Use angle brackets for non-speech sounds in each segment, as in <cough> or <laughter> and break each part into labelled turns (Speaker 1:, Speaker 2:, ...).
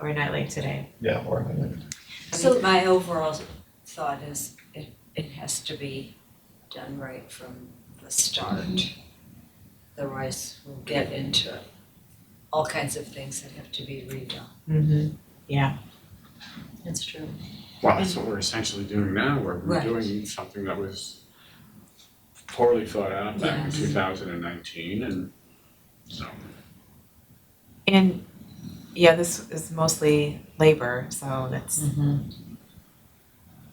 Speaker 1: We're not late today.
Speaker 2: Yeah, or
Speaker 3: I think my overall thought is it it has to be done right from the start. Otherwise, we'll get into all kinds of things that have to be redone.
Speaker 1: Mm-hmm. Yeah.
Speaker 3: That's true.
Speaker 4: Well, that's what we're essentially doing now, we're
Speaker 3: Right.
Speaker 4: redoing something that was poorly thought out back in
Speaker 3: Yes.
Speaker 4: two thousand and nineteen and so.
Speaker 1: And yeah, this is mostly labor, so that's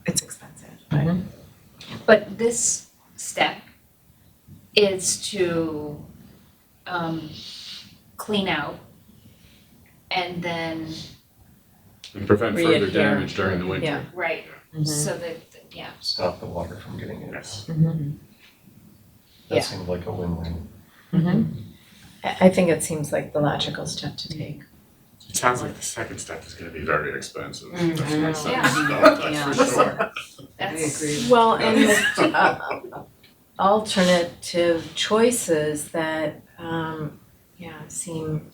Speaker 1: it's expensive. But
Speaker 5: But this step is to um clean out and then,
Speaker 4: And prevent further
Speaker 3: Re-adhere.
Speaker 4: damage during the winter.
Speaker 3: Yeah.
Speaker 5: right,
Speaker 3: Mm-hmm.
Speaker 5: so that, yeah,
Speaker 2: stop the water from getting in.
Speaker 4: Yes.
Speaker 6: Yeah.
Speaker 2: That seemed like a win-win.
Speaker 6: I I think it seems like the logical step to take.
Speaker 4: It sounds like the second step is gonna be very expensive. That's
Speaker 3: Mhm.
Speaker 4: my sense,
Speaker 5: Mm-hmm. <laughs> Yeah.
Speaker 4: though, that's for sure.
Speaker 5: that's.
Speaker 6: <laughs> Well, and the uh, alternative choices that, um, yeah, seem,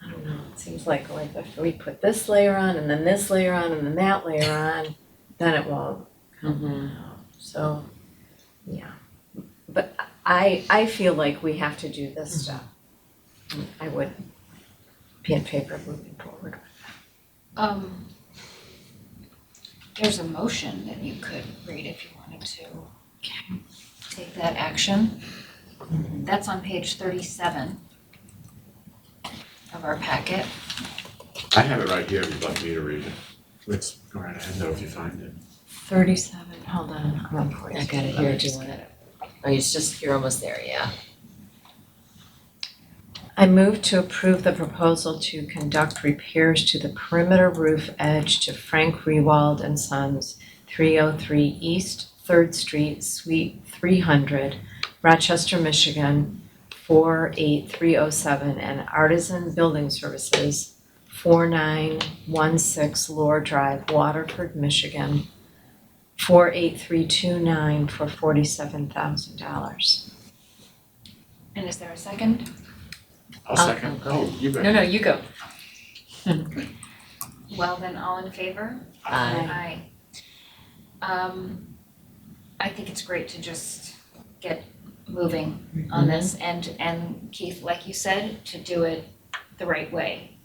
Speaker 6: I don't know, it seems like, like if we put this layer on and then this layer on and then that layer on, then it won't.
Speaker 3: Mm-hmm.
Speaker 6: So, yeah. But I, I feel like we have to do this stuff. I would be in favor of moving forward.
Speaker 5: Um, there's a motion that you could read if you wanted to take that action. That's on page thirty-seven of our packet.
Speaker 4: I have it right here, if you'd like me to read it. Let's go right ahead though if you find it.
Speaker 6: Thirty-seven, hold on, I'm on
Speaker 3: I got it here, do you want it? Oh, it's just, you're almost there, yeah.
Speaker 6: I move to approve the proposal to conduct repairs to the perimeter roof edge to Frank Rewald and Sons, three oh three East Third Street, Suite three hundred, Rochester, Michigan, four eight three oh seven, and Artisan Building Services, four nine one six Lore Drive, Waterford, Michigan, four eight three two nine for forty-seven thousand dollars.
Speaker 5: And is there a second?
Speaker 4: I'll
Speaker 6: I'll-
Speaker 4: second, oh, you bet.
Speaker 6: no, you go.
Speaker 5: Well, then all in favor? Aye. Um, I think it's great to just get moving on this and, and Keith, like you said, to do it the right way.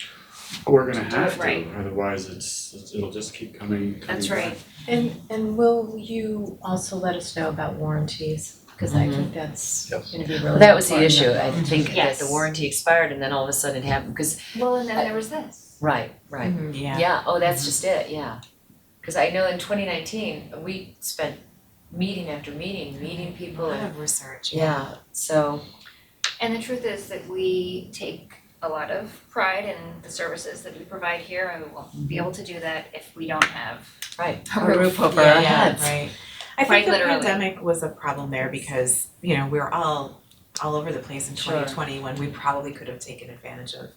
Speaker 4: We're gonna
Speaker 5: To do
Speaker 4: have
Speaker 5: it right.
Speaker 4: to, otherwise it's, it's- it'll just keep coming, coming
Speaker 5: That's
Speaker 4: back.
Speaker 5: right.
Speaker 6: And and will you also let us know about warranties? Cause I think that's
Speaker 2: Yes.
Speaker 6: gonna be really
Speaker 3: Mm-hmm. Well, that was the
Speaker 6: important.
Speaker 3: issue, I think that
Speaker 5: Yes.
Speaker 3: the warranty expired and then all of a sudden it happened, because,
Speaker 5: Well, and then there was this.
Speaker 3: right, right.
Speaker 6: Mm-hmm.
Speaker 1: yeah.
Speaker 3: Yeah, oh, that's just it, yeah. Cause I know in twenty nineteen, we spent meeting after meeting, meeting
Speaker 1: A
Speaker 3: people
Speaker 1: lot
Speaker 3: and,
Speaker 1: of research.
Speaker 3: yeah, so.
Speaker 5: And the truth is that we take a lot of pride in the services that we provide here and we won't be able to do that if we don't have
Speaker 3: Right.
Speaker 5: a
Speaker 6: A
Speaker 5: roof
Speaker 6: roof over
Speaker 1: Yeah,
Speaker 6: our
Speaker 1: yeah,
Speaker 6: heads.
Speaker 1: right. I
Speaker 5: Quite
Speaker 1: think the
Speaker 5: literally.
Speaker 1: pandemic was a problem there because, you know, we were all all over the place in
Speaker 3: Sure.
Speaker 1: twenty twenty when we probably could have taken advantage of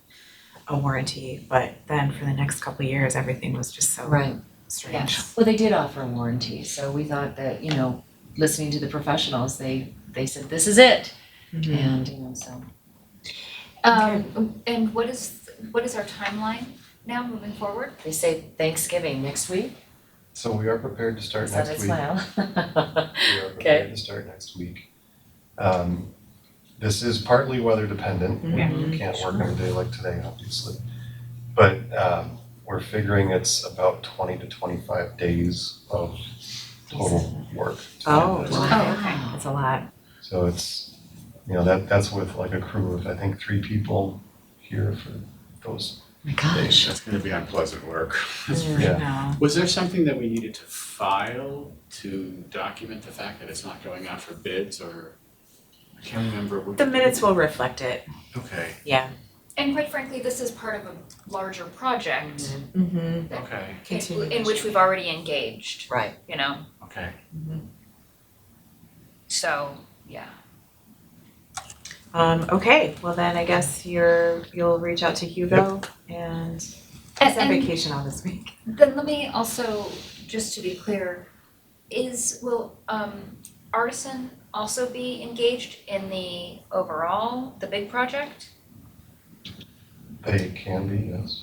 Speaker 1: a warranty, but then for the next couple of years, everything was just so
Speaker 3: Right,
Speaker 1: strange.
Speaker 3: well, they did offer a warranty, so we thought that, you know, listening to the professionals, they they said, this is it.
Speaker 1: Mhm.
Speaker 3: And, you know, so.
Speaker 5: Um, and what is, what is our timeline now moving forward?
Speaker 3: They say Thanksgiving next week,
Speaker 2: So we are prepared to start
Speaker 3: is that
Speaker 2: next week.
Speaker 3: a smile? <laughs>
Speaker 2: We are prepared to start next week. Um, this is partly weather dependent, we
Speaker 1: Mhm.
Speaker 2: can't work on a day like today, obviously. But, um, we're figuring it's about twenty to twenty-five days of total work. to do
Speaker 6: Oh,
Speaker 2: this.
Speaker 6: wow.
Speaker 5: Oh, okay.
Speaker 6: That's a lot.
Speaker 2: So it's, you know, that, that's with like a crew of, I think, three people here for those
Speaker 3: My
Speaker 2: days.
Speaker 4: That's gonna be unpleasant work. That's
Speaker 5: Mm-hmm.
Speaker 1: Mm.
Speaker 4: for
Speaker 2: Yeah.
Speaker 1: No.
Speaker 4: Was there something that we needed to file to document the fact that it's not going out for bids or? I can't remember. what-
Speaker 1: The minutes will reflect it,
Speaker 4: Okay,
Speaker 1: yeah.
Speaker 5: And quite frankly, this is part of a larger project
Speaker 1: Mm-hmm.
Speaker 4: okay,
Speaker 5: in, in which we've already engaged,
Speaker 3: Right,
Speaker 5: you know,
Speaker 4: okay.
Speaker 5: so, yeah.
Speaker 1: Um, okay, well then I guess you're, you'll reach out to Hugo and he's on
Speaker 5: And-
Speaker 1: vacation all this week.
Speaker 5: Then let me also, just to be clear, is, will, um, Artisan also be engaged in the overall, the big project?
Speaker 2: They can be, yes.